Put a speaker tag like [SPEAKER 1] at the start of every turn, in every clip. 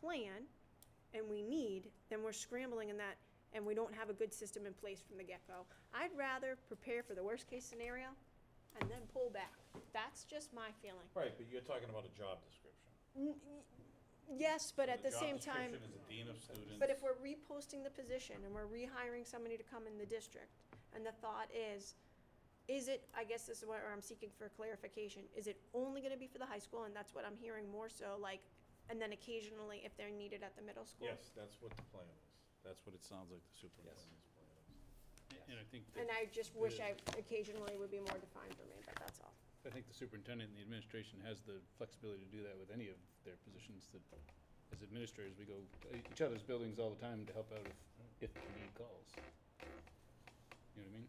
[SPEAKER 1] plan and we need, then we're scrambling in that and we don't have a good system in place from the get-go. I'd rather prepare for the worst-case scenario and then pull back. That's just my feeling.
[SPEAKER 2] Right, but you're talking about a job description.
[SPEAKER 1] Yes, but at the same
[SPEAKER 2] The job
[SPEAKER 1] time,
[SPEAKER 2] description is a dean of students.
[SPEAKER 1] but if we're reposting the position and we're rehiring somebody to come in the district, and the thought is, is it, I guess this is where I'm seeking for clarification, is it only gonna be for the high school, and that's what I'm hearing more so, like, and then occasionally if they're needed at the middle school?
[SPEAKER 2] Yes, that's what the plan is. That's what it sounds like the superintendent's plan is.
[SPEAKER 3] And I think,
[SPEAKER 1] And
[SPEAKER 3] that-
[SPEAKER 1] I just wish I occasionally would be more defined for me, but that's all.
[SPEAKER 3] I think the superintendent and the administration has the flexibility to do that with any of their positions that, as administrators, we go to each other's buildings all the time to help out if, if the need calls. You know what I mean?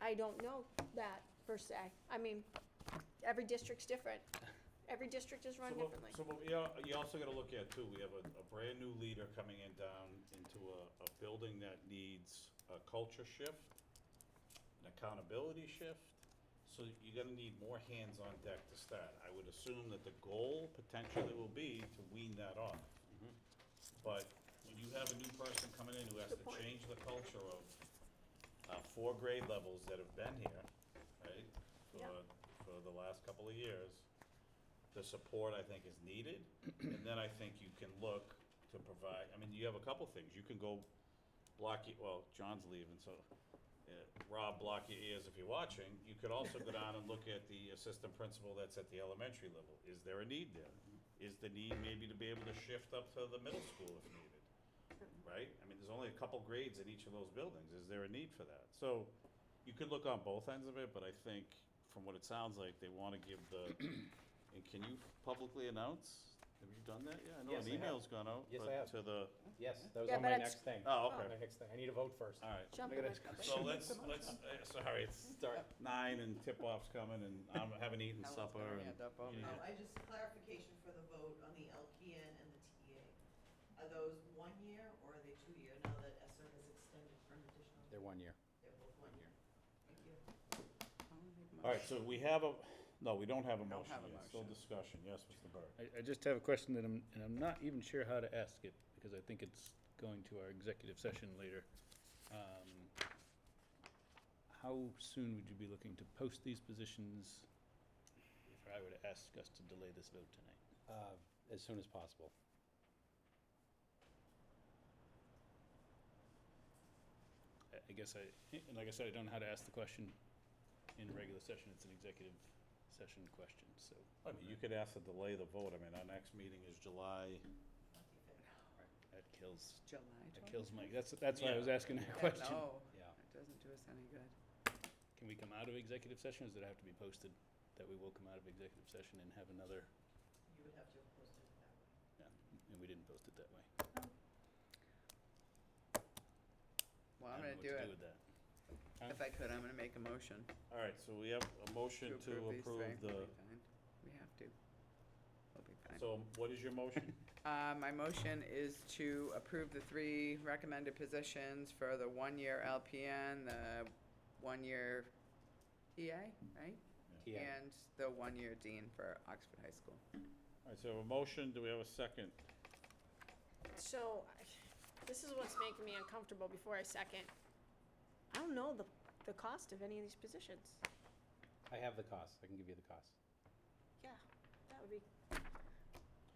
[SPEAKER 1] I don't know that per se. I mean, every district's different. Every district is run
[SPEAKER 2] So what-
[SPEAKER 1] differently.
[SPEAKER 2] So what we are, you also gotta look at too, we have a, a brand-new leader coming in down into a, a building that needs a culture shift, an accountability shift, so you're gonna need more hands on deck to start. I would assume that the goal potentially will be to wean that off. But when you have a new person coming in who has
[SPEAKER 1] Good
[SPEAKER 2] to
[SPEAKER 1] point.
[SPEAKER 2] change the culture of, uh, four grade levels that have been here, right?
[SPEAKER 1] Yeah.
[SPEAKER 2] For, for the last couple of years, the support I think is needed, and then I think you can look to provide, I mean, you have a couple things, you can go block, your well, John's leaving, so, uh, Rob, block your ears if you're watching, you could also go down and look at the assistant principal that's at the elementary level, is there a need there? Is the need maybe to be able to shift up to the middle school if needed? right? I mean, there's only a couple grades in each of those buildings. Is there a need for that? So you could look on both ends of it, but I think from what it sounds like, they want to give the, and can you publicly announce? Have you done that? Yeah, I know
[SPEAKER 4] Yes,
[SPEAKER 2] an
[SPEAKER 4] I have.
[SPEAKER 2] email's gone out.
[SPEAKER 4] Yes, I
[SPEAKER 2] but
[SPEAKER 4] have.
[SPEAKER 2] To the,
[SPEAKER 4] Yes, that was
[SPEAKER 1] Yeah,
[SPEAKER 4] on
[SPEAKER 1] but
[SPEAKER 4] my
[SPEAKER 1] it's-
[SPEAKER 4] next thing.
[SPEAKER 2] oh,
[SPEAKER 4] My
[SPEAKER 2] okay,
[SPEAKER 4] next thing. I need a vote first.
[SPEAKER 2] all right.
[SPEAKER 1] Jump
[SPEAKER 4] Look at
[SPEAKER 1] in
[SPEAKER 4] that.
[SPEAKER 1] my cup.
[SPEAKER 2] So let's, let's, uh, sorry, it's dark nine and tip-off's coming and I haven't eaten supper. and-
[SPEAKER 5] Oh,
[SPEAKER 2] Yeah.
[SPEAKER 5] I just clarification for the vote on the LPN and the TA. Are those one year or are they two year now that ESER has extended for an additional?
[SPEAKER 4] They're one year.
[SPEAKER 5] They're both one year. Thank you.
[SPEAKER 2] All right, so we have a, no, we don't have a motion
[SPEAKER 6] Oh, have a
[SPEAKER 2] yet. Still
[SPEAKER 6] motion.
[SPEAKER 2] discussion. Yes, Mr. Burke.
[SPEAKER 3] I, I just have a question that I'm, and I'm not even sure how to ask it, because I think it's going to our executive session later. Um, How soon would you be looking to post these positions if I were to ask us to delay this vote tonight?
[SPEAKER 4] Uh, As soon as possible.
[SPEAKER 3] I- I guess I, and like I said, I don't know how to ask the question in a regular session, it's an executive session question, so.
[SPEAKER 2] I mean, you could ask to delay the vote. I mean, our next meeting is July.
[SPEAKER 3] That kills,
[SPEAKER 6] July
[SPEAKER 3] that
[SPEAKER 6] 12th?
[SPEAKER 3] kills Mike, that's, that's why I was
[SPEAKER 2] Yeah.
[SPEAKER 3] asking that
[SPEAKER 6] Yeah,
[SPEAKER 3] question.
[SPEAKER 6] No,
[SPEAKER 4] Yeah.
[SPEAKER 6] it doesn't do us any good.
[SPEAKER 3] Can we come out of executive session, or does it have to be posted that we will come out of executive session and have another,
[SPEAKER 5] You would have to have posted it that way.
[SPEAKER 3] yeah, and we didn't post it that way?
[SPEAKER 6] Well,
[SPEAKER 3] I
[SPEAKER 6] I'm gonna
[SPEAKER 3] don't
[SPEAKER 6] do
[SPEAKER 3] know what to do with
[SPEAKER 6] it.
[SPEAKER 3] that.
[SPEAKER 6] If I could, I'm gonna make a motion
[SPEAKER 2] All right, so we have a
[SPEAKER 6] to
[SPEAKER 2] motion to
[SPEAKER 6] approve these
[SPEAKER 2] approve
[SPEAKER 6] things. We'll
[SPEAKER 2] the,
[SPEAKER 6] be fine. We have to. We'll be fine.
[SPEAKER 2] so what is your motion?
[SPEAKER 6] Uh, my motion is to approve the three recommended positions for the one-year LPN, the one-year EA, right?
[SPEAKER 4] Yeah.
[SPEAKER 6] And the one-year dean for Oxford High School.
[SPEAKER 2] All right, so we have a motion, do we have a second?
[SPEAKER 1] So, I- this is what's making me uncomfortable before I second. I don't know the, the cost of any of these positions.
[SPEAKER 4] I have the cost. I can give you the cost.
[SPEAKER 1] Yeah, that would be,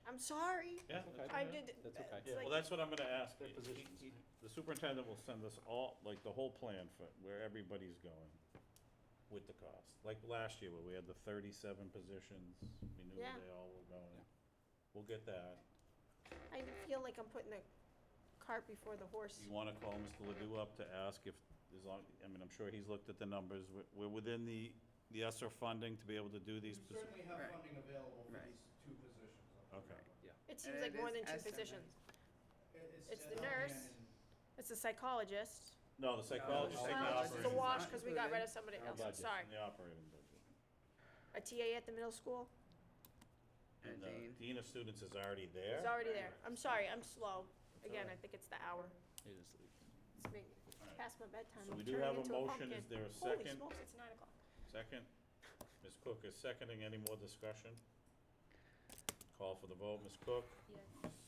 [SPEAKER 1] I'm sorry.
[SPEAKER 2] Yeah.
[SPEAKER 4] okay.
[SPEAKER 1] I did.
[SPEAKER 4] That's okay.
[SPEAKER 1] it's
[SPEAKER 2] Yeah, well,
[SPEAKER 1] like-
[SPEAKER 2] Uh-huh. that's what I'm gonna ask. He- he- The superintendent will send us all, like, the whole plan for where everybody's going with the cost. Like last year, where we had the thirty-seven positions, we knew where
[SPEAKER 1] Yeah.
[SPEAKER 2] they all were
[SPEAKER 4] Yeah.
[SPEAKER 2] going. We'll get that.
[SPEAKER 1] I feel like I'm putting the cart before the horse.
[SPEAKER 2] You wanna call Mr. Ledoux up to ask if, as long, I mean, I'm sure he's looked at the numbers. We're, we're within the, the ESSER funding to be able to do these.
[SPEAKER 7] We
[SPEAKER 2] posi-
[SPEAKER 7] certainly have
[SPEAKER 6] Right.
[SPEAKER 7] funding available for
[SPEAKER 6] Right.
[SPEAKER 7] these two positions.
[SPEAKER 2] Okay.
[SPEAKER 1] It seems
[SPEAKER 6] And
[SPEAKER 1] like
[SPEAKER 6] it
[SPEAKER 1] more
[SPEAKER 6] is
[SPEAKER 1] than two
[SPEAKER 6] estimate.
[SPEAKER 1] positions.
[SPEAKER 7] It-
[SPEAKER 1] It's
[SPEAKER 7] at
[SPEAKER 1] the
[SPEAKER 7] LPN
[SPEAKER 1] nurse.
[SPEAKER 7] and-
[SPEAKER 1] It's the psychologist.
[SPEAKER 2] No, the psychologist,
[SPEAKER 1] Oh,
[SPEAKER 2] and the
[SPEAKER 4] Well,
[SPEAKER 1] It's the
[SPEAKER 2] operating,
[SPEAKER 1] wash, because we got rid of somebody else, I'm
[SPEAKER 4] budget.
[SPEAKER 1] sorry.
[SPEAKER 2] and the operating budget.
[SPEAKER 1] A TA at the middle school
[SPEAKER 6] And
[SPEAKER 2] the
[SPEAKER 6] dean.
[SPEAKER 2] Dean of students is already there.
[SPEAKER 1] is already there. I'm sorry, I'm slow. Again,
[SPEAKER 2] all
[SPEAKER 1] I
[SPEAKER 2] right.
[SPEAKER 1] think it's the hour.
[SPEAKER 3] It is,
[SPEAKER 1] It's me- it's
[SPEAKER 2] All right.
[SPEAKER 1] past my bedtime.
[SPEAKER 2] So
[SPEAKER 1] I'm
[SPEAKER 2] we do
[SPEAKER 1] turning
[SPEAKER 2] have a
[SPEAKER 1] into
[SPEAKER 2] motion.
[SPEAKER 1] pumpkin.
[SPEAKER 2] Is there a
[SPEAKER 1] Holy
[SPEAKER 2] second?
[SPEAKER 1] smokes, it's nine o'clock.
[SPEAKER 2] Second, Ms. Cook is seconding. Any more discussion? Call for the vote, Ms. Cook?
[SPEAKER 8] Yes.